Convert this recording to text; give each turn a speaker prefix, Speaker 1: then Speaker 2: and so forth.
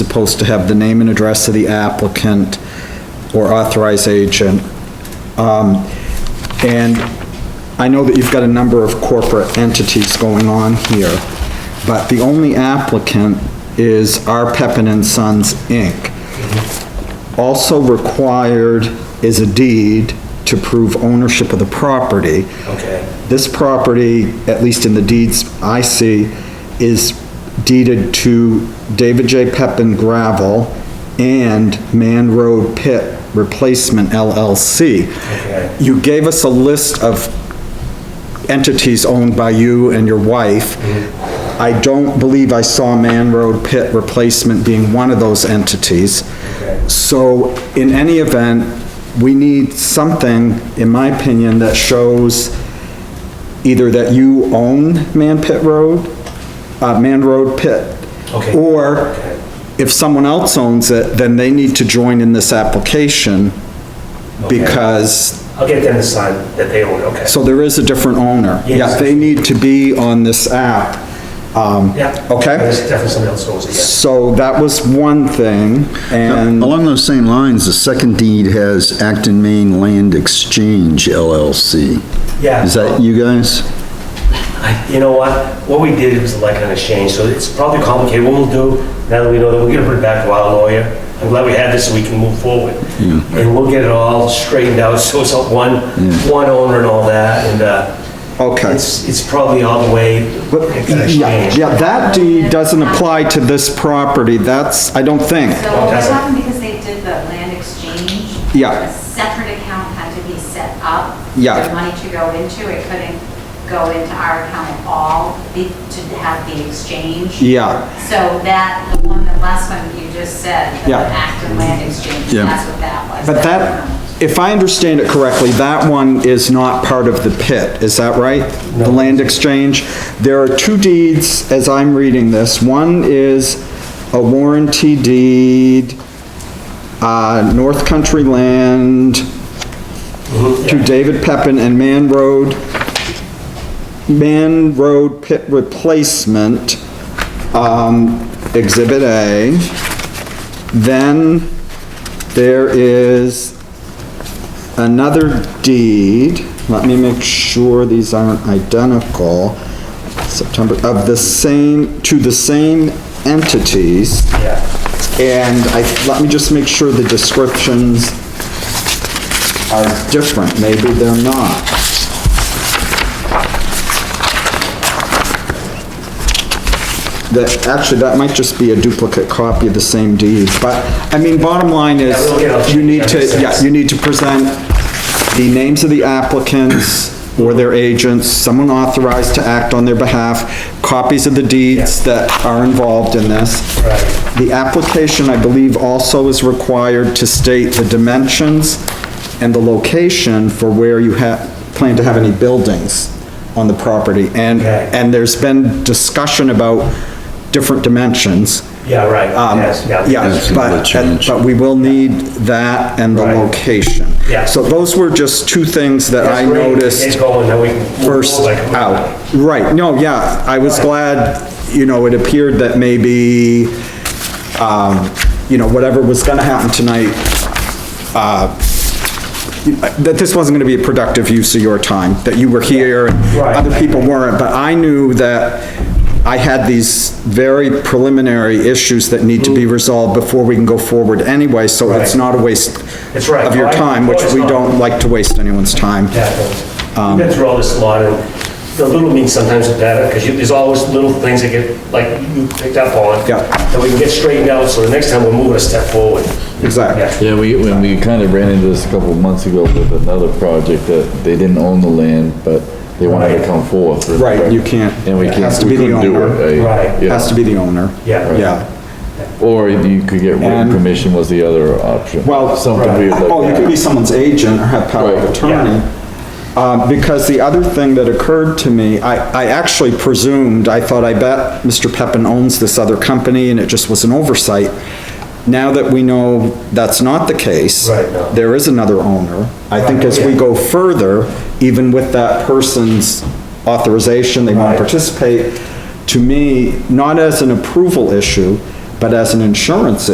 Speaker 1: supposed to have the name and address of the applicant or authorized agent. Um, and I know that you've got a number of corporate entities going on here, but the only applicant is R. Peppin and Sons, Inc. Also required is a deed to prove ownership of the property.
Speaker 2: Okay.
Speaker 1: This property, at least in the deeds I see, is deeded to David J. Pepin Gravel and Man Road Pit Replacement LLC.
Speaker 2: Okay.
Speaker 1: You gave us a list of entities owned by you and your wife. I don't believe I saw Man Road Pit Replacement being one of those entities.
Speaker 2: Okay.
Speaker 1: So in any event, we need something, in my opinion, that shows either that you own Man Pit Road, uh, Man Road Pit.
Speaker 2: Okay.
Speaker 1: Or if someone else owns it, then they need to join in this application
Speaker 2: Okay.
Speaker 1: because,
Speaker 2: I'll get them to sign that they own, okay.
Speaker 1: so there is a different owner. Yeah,
Speaker 2: Yes.
Speaker 1: they need to be on this app. Um,
Speaker 2: Yeah.
Speaker 1: Okay?
Speaker 2: There's definitely something else owns it,
Speaker 1: So that was one thing and.
Speaker 3: Along those same lines, the second deed has Acton Maine Land Exchange LLC.
Speaker 2: yeah.
Speaker 3: Is that you guys?
Speaker 2: You know what? What we did was like an exchange, so it's probably complicated. What we'll do, now that we know that, we're gonna bring back our lawyer. I'm glad we had this so we can move forward. And we'll get it all straightened out, so it's all one, one owner and all that, and, uh,
Speaker 1: Okay.
Speaker 2: It's, it's probably all the way.
Speaker 1: But,
Speaker 2: it's an
Speaker 1: yeah,
Speaker 2: exchange.
Speaker 1: yeah, that deed doesn't apply to this property, that's, I don't think.
Speaker 4: So
Speaker 2: Oh,
Speaker 4: what
Speaker 2: that's-
Speaker 4: happened because they did the land exchange?
Speaker 1: Yeah.
Speaker 4: A separate account had to be set up.
Speaker 1: Yeah.
Speaker 4: For money to go into, it couldn't go into our account at all be- to have the exchange.
Speaker 1: Yeah.
Speaker 4: So that, the one, the last one you just said, the
Speaker 1: Yeah.
Speaker 4: Acton land exchange,
Speaker 3: Yeah.
Speaker 4: that's what that was. Um,
Speaker 1: But that, if I understand it correctly, that one is not part of the pit, is that right? The land exchange? There are two deeds, as I'm reading this. One is a warranty deed, uh, North Country Land to David Pepin and Man Road, Man Road Pit Replacement, um, Exhibit A. Then there is another deed, let me make sure these aren't identical, September, of the same, to the same entities.
Speaker 2: Yeah.
Speaker 1: And I, let me just make sure the descriptions are different, maybe they're not. That, actually, that might just be a duplicate copy of the same deed, but, I mean, bottom line is,
Speaker 2: Yeah, we'll get all-
Speaker 1: you need to,
Speaker 2: that makes
Speaker 1: yeah,
Speaker 2: sense.
Speaker 1: you need to present the names of the applicants or their agents, someone authorized to act on their behalf, copies of the deeds that are involved in this.
Speaker 2: Right.
Speaker 1: The application, I believe, also is required to state the dimensions and the location for where you have, plan to have any buildings on the property. And,
Speaker 2: Okay.
Speaker 1: and there's been discussion about different dimensions.
Speaker 2: Yeah, right.
Speaker 1: Um,
Speaker 2: Yes, yeah.
Speaker 1: Yeah,
Speaker 3: That's gonna
Speaker 1: but, and-
Speaker 3: change.
Speaker 1: but we will need that and the
Speaker 2: Right.
Speaker 1: location.
Speaker 2: Yeah.
Speaker 1: So those were just two things that I
Speaker 2: That's great.
Speaker 1: noticed
Speaker 2: Get going, then we can move
Speaker 1: first
Speaker 2: forward.
Speaker 1: out. Right, no, yeah, I was glad, you know, it appeared that maybe, um, you know, whatever was gonna happen tonight, uh, that this wasn't gonna be a productive use of your time, that you were here and
Speaker 2: Right.
Speaker 1: other people weren't, but I knew that I had these very preliminary issues that need to be resolved before we can go forward anyway, so it's
Speaker 2: Mm-hmm. Right.
Speaker 1: not a waste
Speaker 2: That's right.
Speaker 1: of your
Speaker 2: Well, I-
Speaker 1: time, which
Speaker 2: well, it's
Speaker 1: we
Speaker 2: not.
Speaker 1: don't like to waste anyone's time.
Speaker 2: Yeah, we've been through all this a lot, and the little means sometimes the better, because there's always little things that get, like, you picked up on.
Speaker 1: Yeah.
Speaker 2: That we can get straightened out, so the next time we're moving a step forward.
Speaker 1: Exactly.
Speaker 2: Yeah.
Speaker 5: Yeah, we, when we kind of ran into this a couple of months ago with another project that they didn't own the land, but they wanted to come forth.
Speaker 1: Right, you can't-
Speaker 5: And we
Speaker 1: it
Speaker 5: can't,
Speaker 1: has to
Speaker 5: we
Speaker 1: be the
Speaker 5: couldn't do
Speaker 1: owner.
Speaker 5: it.
Speaker 2: Right.
Speaker 5: Yeah.
Speaker 1: Has to be the owner.
Speaker 2: Yeah.
Speaker 1: Yeah.
Speaker 5: Or you could get written
Speaker 1: And-
Speaker 5: permission was the other option.
Speaker 1: Well,
Speaker 5: Something we would like.
Speaker 1: oh, you
Speaker 5: that.
Speaker 1: could be someone's agent or have power of
Speaker 5: Right.
Speaker 1: attorney. Uh, because the other thing that occurred to me, I, I actually presumed, I thought, I bet Mr. Peppin owns this other company and it just was an oversight. Now that we know that's not the case.
Speaker 2: Right, no.
Speaker 1: There is another owner. I think as we
Speaker 2: yeah.
Speaker 1: go further, even with that person's authorization, they want to
Speaker 2: Right.
Speaker 1: participate, to me, not as an approval issue, But as an insurance